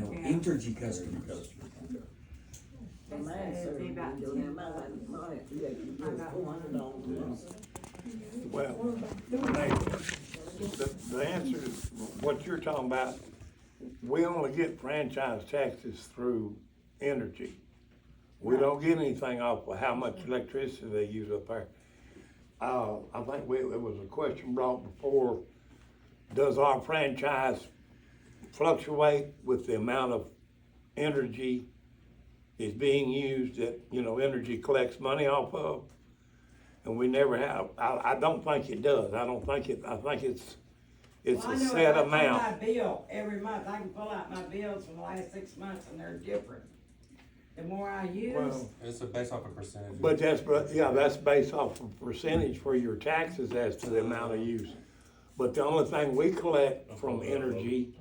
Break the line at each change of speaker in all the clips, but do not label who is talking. Entergy customers.
Well, mine certainly
Maybe about
don't have my
10.
money, yeah, you
I
just
got
forced
one.
it on them.
Well, they, the, the answer to what you're talking about, we only get franchise taxes through energy. We don't get anything off of how much electricity they use up there. Uh, I think we, it was a question brought before, does our franchise fluctuate with the amount of energy is being used that, you know, energy collects money off of? And we never have, I, I don't think it does, I don't think it, I think it's, it's
Well, I
a
know if
set
I pay My
amount.
bill every month, I can pull out my bills for the last six months and they're different. The more I use,
Well,
It's a- based off a percentage.
But that's, but, yeah, that's based off of percentage for your taxes as to the amount of use. But the only thing we collect from energy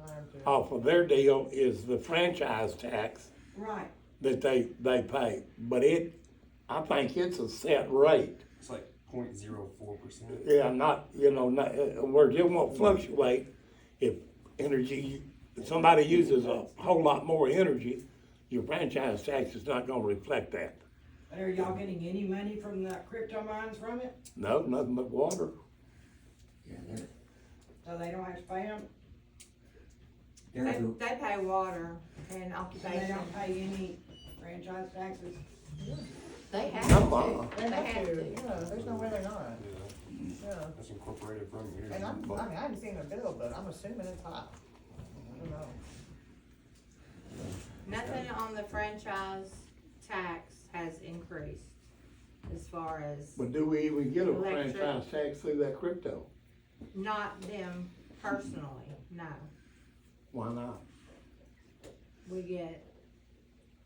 off of their deal is the franchise tax
right,
that they, they pay. But it, I think it's a set rate.
It's like 004 percent.
Yeah, not, you know, not, uh, where it won't fluctuate if energy, if somebody uses a whole lot more energy, your franchise tax is not gonna reflect that.
but are y'all getting any money from the crypto mines from it?
No, nothing but water.
Yeah, they're,
So they don't have to pay them,
they're,
They,
the-
they pay water and
so they
occupation.
don't pay any franchise taxes?
They
Come on.
They
They
have
have
to,
to.
yeah, there's no way they're not,
Yeah,
yeah.
that's incorporated from here.
And I'm, I mean, I haven't seen the bill, but I'm assuming it's high. I don't know.
Nothing on the franchise tax has increased as far as
But do we even get a
Electric.
franchise tax through that crypto?
not them personally, no.
Why not?
We get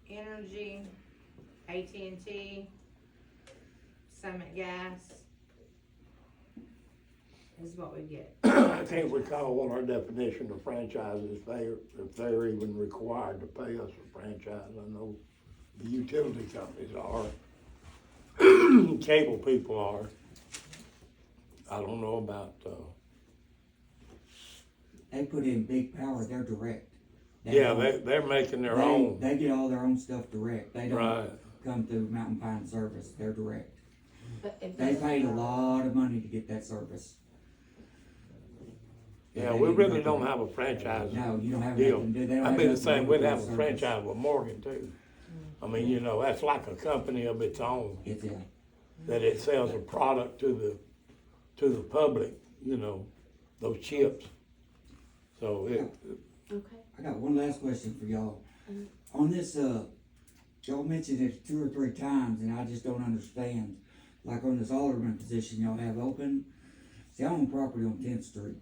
energy, AT&T, Summit Gas is what we get.
I can't recall what our definition of franchise is, they, if they're even required to pay us a franchise, I know the utility companies are. Cable people are. I don't know about, uh,
they put in big power, they're direct. They
yeah,
don't-
they, they're making their
they-
own,
They get all their own stuff direct. They
right,
don't come through Mountain Pine Service. They're direct.
But if
They paid a lot of money to get that service.
yeah,
They
we
didn't
really
get
don't
that.
have a franchise.
No, you don't have
deal.
nothing to do. They don't
I'd
have
be the
nothing to
same,
do
we'd
with
have
that
a
service.
franchise with Morgan too. I mean, you know, that's like a company of its own,
It's a,
that it sells a product to the, to the public, you know, those chips. So it,
Okay.
I got one last question for y'all.
Mm-hmm.
On this, uh, y'all mentioned it two or three times, and I just don't understand. Like on this alderman position, y'all have open. See, I own property on Tenth Street,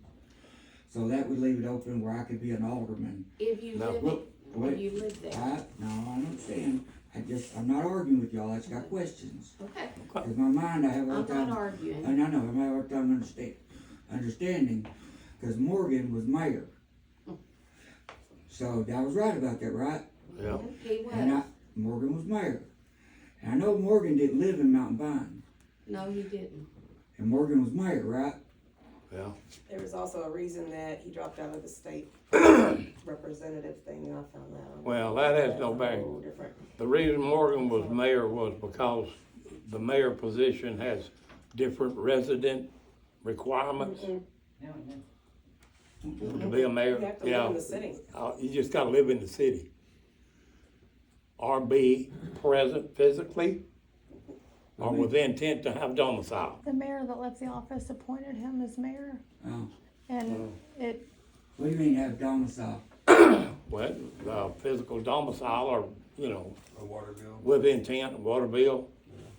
so that would leave it open where I could be an alderman.
If you
No.
live,
Well,
if
wait,
you live there,
I, no, I understand. I just, I'm not arguing with y'all. I just got questions.
okay,
In my mind, I have all
I'm
the time.
not arguing.
And I know, I'm having a hard time understand, understanding, because Morgan was mayor. So I was right about that, right?
yeah,
He
And I,
was,
Morgan was mayor. And I know Morgan didn't live in Mountain Vine,
no, you didn't.
and Morgan was mayor, right?
yeah.
There was also a reason that he dropped out of the state representative thing, and I found that out.
Well, that has
That's
no
a
bearing.
whole different-
The reason Morgan was mayor was because the mayor position has different resident requirements
Mm-hmm.
No, no.
to be a
You
mayor,
have to live
yeah.
in the city.
Uh, you just gotta live in the city. Or be present physically, or with the intent to have domicile.
the mayor that left the office appointed him as mayor,
Uh,
and it
what do you mean have domicile?
Well, uh, physical domicile or, you know,
A water bill.
with intent, water bill,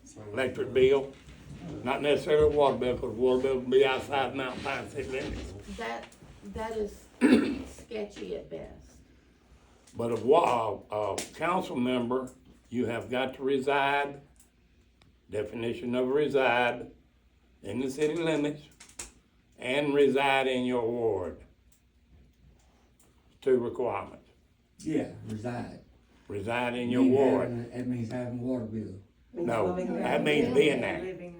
so-
electric bill. Not necessarily water bill, because water bill can be outside Mount Pine city limits.
That, that is sketchy at best.
But a wa, uh, a council member, you have got to reside, definition of reside, in the city limits, and reside in your ward. Two requirements,
Yeah, reside.
reside in your
Mean
ward,
having- That means having a water bill.
Mm-hmm. Means
No,
living there.
that means being there.
Living there.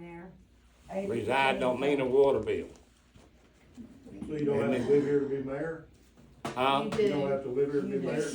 Reside don't mean a water bill.
So you don't have to live here to be mayor?
Huh?
You
You don't
do.
have to live here to
You
be
do.
mayor?